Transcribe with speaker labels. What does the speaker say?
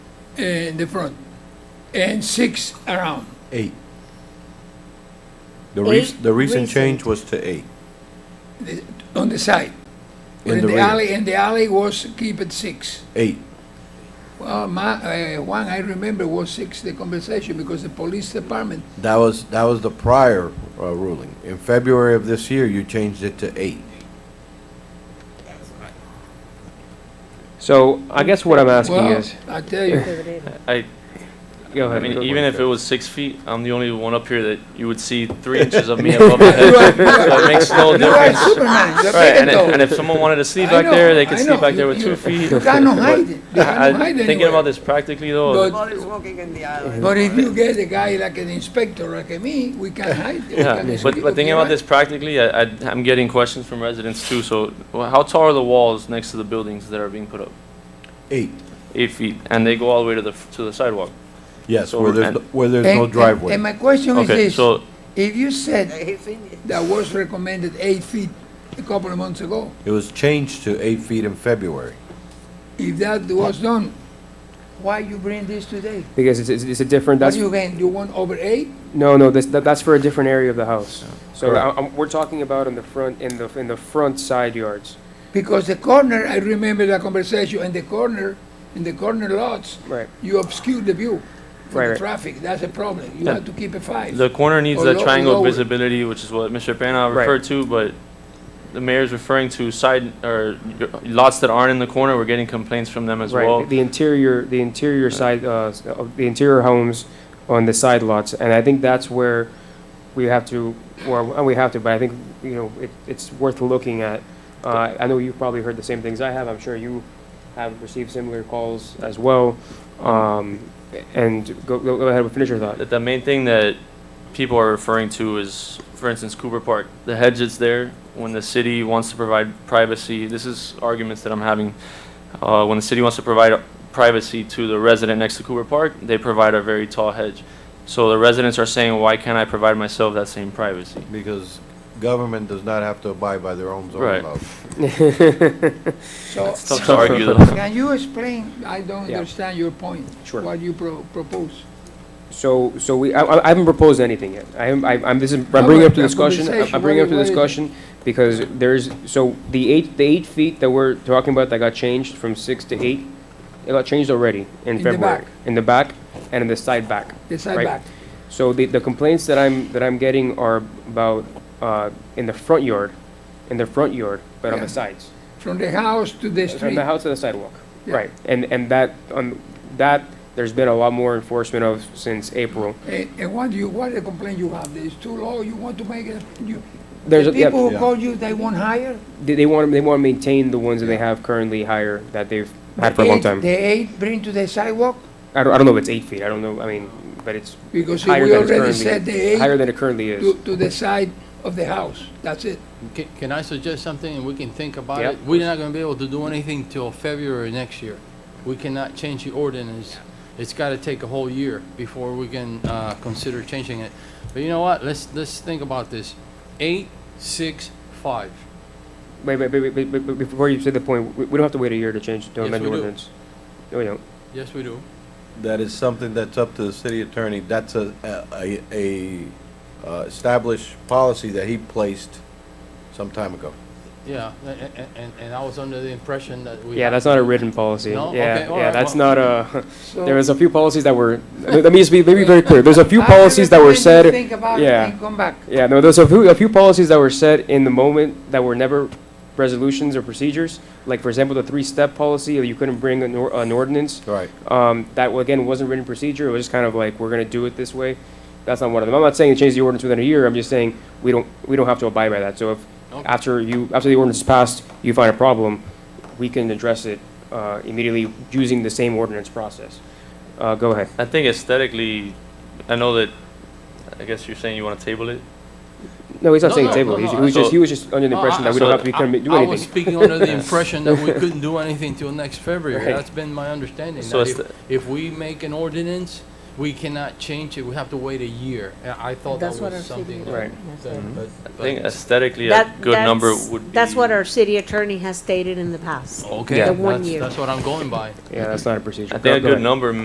Speaker 1: in the front and six around.
Speaker 2: Eight. The rec-
Speaker 3: Eight
Speaker 2: the recent
Speaker 3: recent.
Speaker 2: change was to eight.
Speaker 1: the- on the side.
Speaker 2: In
Speaker 1: In
Speaker 2: the
Speaker 1: the
Speaker 2: rear.
Speaker 1: alley, in the alley was keep it six.
Speaker 2: Eight.
Speaker 1: Well, my, uh, one I remember was six, the conversation, because the police department,
Speaker 2: That was, that was the prior uh, ruling. In February of this year, you changed it to eight.
Speaker 4: So I guess what I'm asking
Speaker 1: well,
Speaker 4: is,
Speaker 1: I tell you,
Speaker 5: I,
Speaker 4: go
Speaker 5: I
Speaker 4: ahead.
Speaker 5: mean,
Speaker 4: go
Speaker 5: even
Speaker 4: for
Speaker 5: if it was six feet, I'm the only one up here that you would see three inches of me above my head.
Speaker 1: You are-
Speaker 5: So it makes no
Speaker 1: you are
Speaker 5: difference.
Speaker 1: Superman, you're
Speaker 5: Right,
Speaker 1: big
Speaker 5: and if,
Speaker 1: and tall.
Speaker 5: and if someone wanted to sleep
Speaker 1: I
Speaker 5: back there,
Speaker 1: know,
Speaker 5: they could
Speaker 1: I
Speaker 5: sleep
Speaker 1: know.
Speaker 5: back there
Speaker 1: You-
Speaker 5: with
Speaker 1: you-
Speaker 5: two feet.
Speaker 1: You cannot
Speaker 5: But
Speaker 1: hide it, you cannot
Speaker 5: I-
Speaker 1: hide
Speaker 5: Thinking
Speaker 1: anywhere.
Speaker 5: about this practically though,
Speaker 1: But-
Speaker 6: Boat is walking in the island.
Speaker 1: But if you get a guy like an inspector like me, we can hide. it. We
Speaker 5: yeah,
Speaker 1: can
Speaker 5: but,
Speaker 1: escape
Speaker 5: but thinking
Speaker 1: if
Speaker 5: about
Speaker 1: we
Speaker 5: this practically, I, I, I'm getting questions from residents too, so well, how tall are the walls next to the buildings that are being put up?
Speaker 2: Eight.
Speaker 5: Eight feet, and they go all the way to the, f- to the sidewalk.
Speaker 2: Yes,
Speaker 5: So
Speaker 2: where there's,
Speaker 5: and-
Speaker 2: no- where there's
Speaker 1: want. And-
Speaker 2: no
Speaker 1: and- And
Speaker 2: driveway.
Speaker 1: my question is
Speaker 5: Okay,
Speaker 1: this,
Speaker 5: so,
Speaker 1: if you said
Speaker 6: He finished.
Speaker 1: that was recommended eight feet a couple of months ago,
Speaker 2: It was changed to eight feet in February.
Speaker 1: If that was done, why you bring this today?
Speaker 4: it. Because it's, it's, it's a different,
Speaker 1: What
Speaker 4: that's,
Speaker 1: do you gain? You want over eight?
Speaker 4: no, no, this, that, that's for a different area of the
Speaker 5: Oh,
Speaker 4: house. So I, I'm, we're talking about in the front, in the, in the front side yards.
Speaker 1: Because the corner, I remember the conversation, in the corner, in the corner lots,
Speaker 4: Right.
Speaker 1: you obscure the view for
Speaker 4: Right,
Speaker 1: the
Speaker 4: right.
Speaker 1: traffic, that's a problem. You
Speaker 5: Yeah.
Speaker 1: have to keep it five.
Speaker 5: The corner needs
Speaker 1: Or
Speaker 5: that
Speaker 1: lo-
Speaker 5: triangle
Speaker 1: lower.
Speaker 5: visibility, which is what Mr. Pena
Speaker 4: Oh, Right.
Speaker 5: referred to, but the mayor's referring to side, or lots that aren't in the corner, we're getting complaints from them as
Speaker 4: right.
Speaker 5: well.
Speaker 4: The interior, the interior side, uh, s- of the interior homes on the side lots, and I think that's where we have to, well, and we have to, but I think, you know, it, it's worth looking at. Uh, I know you've probably heard the same things I have, I'm sure you have received similar calls as well. Um, and go, go go ahead, finish your thought.
Speaker 5: That the main thing that people are referring to is, for instance, Cooper Park, the hedge that's there, when the city wants to provide privacy, this is arguments that I'm having. Uh, when the city wants to provide privacy to the resident next to Cooper Park, they provide a very tall hedge. So the residents are saying, why can't I provide myself that same privacy?
Speaker 2: Because government does not have to abide by their own zoning
Speaker 5: Right.
Speaker 2: laws.
Speaker 1: So,
Speaker 5: It's tough to argue though.
Speaker 1: can you explain, I don't
Speaker 4: Yeah.
Speaker 1: understand your point.
Speaker 4: Sure.
Speaker 1: What you pro- propose.
Speaker 4: So, so we, I, I haven't proposed anything yet. I am, I- I'm, this is,
Speaker 1: No,
Speaker 4: I'm bringing up
Speaker 1: but
Speaker 4: to
Speaker 1: the
Speaker 4: discussion, I'm-
Speaker 1: conversation,
Speaker 4: I'm bringing up
Speaker 1: what
Speaker 4: to
Speaker 1: is- what is
Speaker 4: discussion because there's, so the eight, the eight feet that we're talking about that got changed from six to eight, it got changed already in
Speaker 1: the
Speaker 4: February.
Speaker 1: back.
Speaker 4: In the back and in the side back.
Speaker 1: The
Speaker 4: Right.
Speaker 1: setback.
Speaker 4: So the, the complaints that I'm, that I'm getting are about, uh, in the front yard, in the front yard, but on
Speaker 1: Yeah.
Speaker 4: the sides.
Speaker 1: From the house to the
Speaker 4: From
Speaker 1: street.
Speaker 4: the house to the sidewalk,
Speaker 1: Yeah.
Speaker 4: right. And, and that, on, that, there's been a lot more enforcement of since April.
Speaker 1: And, and what do you, what the complaint you have? It's too low, you want to make it, you,
Speaker 4: There's,
Speaker 1: the
Speaker 4: a- yeah.
Speaker 1: people who
Speaker 2: Yeah.
Speaker 1: call you, they want higher?
Speaker 4: They, they want, they want to maintain the ones that they have currently higher, that they've had for a long
Speaker 1: Eight-
Speaker 4: time.
Speaker 1: The eight bring to the sidewalk?
Speaker 4: I don't, I don't know if it's eight feet, I don't know, I mean, but it's
Speaker 1: Because
Speaker 4: higher
Speaker 1: we
Speaker 4: than it's
Speaker 1: already said the
Speaker 4: currently, higher
Speaker 1: eight
Speaker 4: than it currently
Speaker 1: to,
Speaker 4: is.
Speaker 1: to the side of the house, that's it.
Speaker 7: Ca- Can I suggest something and we can think about
Speaker 4: Yeah.
Speaker 7: it? We're not gonna be able to do anything till February next year. We cannot change the ordinance. It's gotta take a whole year before we can, uh, consider changing it. But you know what? Let's, let's think about this. Eight, six, five.
Speaker 4: Wait, wait, wait, wait, wait, wait, before you say the point, we, we don't have to wait a year to change, to
Speaker 7: Yes,
Speaker 4: amend the
Speaker 7: we do.
Speaker 4: ordinance. No, we don't.
Speaker 7: Yes, we do.
Speaker 2: That is something that's up to the city attorney. That's a, a, a uh, established policy that he placed some time ago.
Speaker 7: Yeah, a- a- a- and, and I was under the impression that we.
Speaker 4: Yeah, that's not a written policy.
Speaker 7: No?
Speaker 4: Yeah,
Speaker 7: Okay, all
Speaker 4: yeah,
Speaker 7: right,
Speaker 4: that's
Speaker 7: well-
Speaker 4: not a,
Speaker 1: So-
Speaker 4: there was a few policies that were, let me just be, let me be very clear, there's a few
Speaker 1: I
Speaker 4: policies that were
Speaker 1: recommend you
Speaker 4: said.
Speaker 1: Think about it
Speaker 4: yeah.
Speaker 1: and come back.
Speaker 4: Yeah, no, there's a few, a few policies that were set in the moment that were never resolutions or procedures. Like, for example, the three-step policy, or you couldn't bring an, or- an ordinance.
Speaker 2: Right.
Speaker 4: Um, that, well, again, wasn't written procedure, it was just kind of like, we're gonna do it this way. That's not one of them. I'm not saying to change the ordinance within a year, I'm just saying, we don't, we don't have to abide by that. So if,
Speaker 7: Okay.
Speaker 4: after you, after the ordinance is passed, you find a problem, we can address it, uh, immediately using the same ordinance process. Uh, go ahead.
Speaker 5: I think aesthetically, I know that, I guess you're saying you want to table it?
Speaker 4: No, he's not
Speaker 7: No,
Speaker 4: saying
Speaker 7: no,
Speaker 4: table,
Speaker 7: no,
Speaker 4: he's- he
Speaker 7: no,
Speaker 4: was just,
Speaker 5: so-
Speaker 4: he was just under the
Speaker 7: No,
Speaker 4: impression
Speaker 7: Oh, I-
Speaker 4: that we
Speaker 5: so
Speaker 4: don't have to commit- do
Speaker 7: I- I was
Speaker 4: anything.
Speaker 7: speaking under the impression that we couldn't do anything till next February.
Speaker 4: Right.
Speaker 7: That's been my understanding.
Speaker 5: So
Speaker 7: that
Speaker 5: it's
Speaker 7: if- If we make an ordinance, we cannot change it. We have to wait a year. I I thought that
Speaker 3: That's what I'm
Speaker 7: was something.
Speaker 3: thinking.
Speaker 7: that-
Speaker 4: Right.
Speaker 7: that-
Speaker 5: I
Speaker 7: but- but-
Speaker 5: think aesthetically, a
Speaker 3: That-
Speaker 5: good number
Speaker 3: that's-
Speaker 5: would be.
Speaker 3: That's what our city attorney has stated in the past.
Speaker 7: Okay,
Speaker 4: Yeah.
Speaker 3: The one
Speaker 7: that's,
Speaker 3: year.
Speaker 7: that's what I'm going by.
Speaker 4: Yeah, that's not a procedure.
Speaker 5: I
Speaker 4: Go-
Speaker 5: think a
Speaker 4: go
Speaker 5: good
Speaker 4: ahead.
Speaker 5: number